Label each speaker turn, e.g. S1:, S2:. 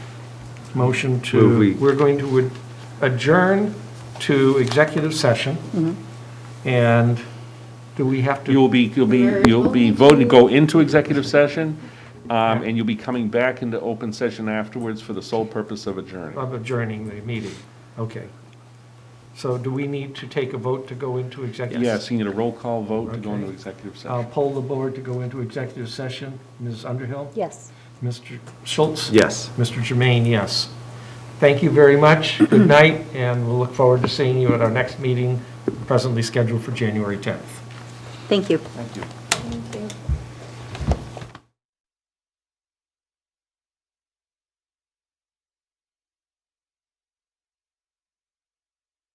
S1: motion
S2: Move we-
S1: to, we're going to adjourn to executive session. And do we have to?
S2: You'll be, you'll be, you'll be voting to go into executive session, um, and you'll be coming back into open session afterwards for the sole purpose of adjourning.
S1: Of adjourning the meeting, okay. So do we need to take a vote to go into executive?
S2: Yes, you need a roll call vote to go into
S1: Okay.
S2: executive
S1: I'll
S2: session.
S1: poll the board to go into executive session. Ms. Underhill?
S3: Yes.
S1: Mr. Schultz?
S4: Yes.
S1: Mr. Jermaine, yes. Thank you very much, good night, and we'll look forward to seeing you at our next meeting, presently scheduled for January 10th.
S3: Thank you.
S2: Thank you.
S5: Thank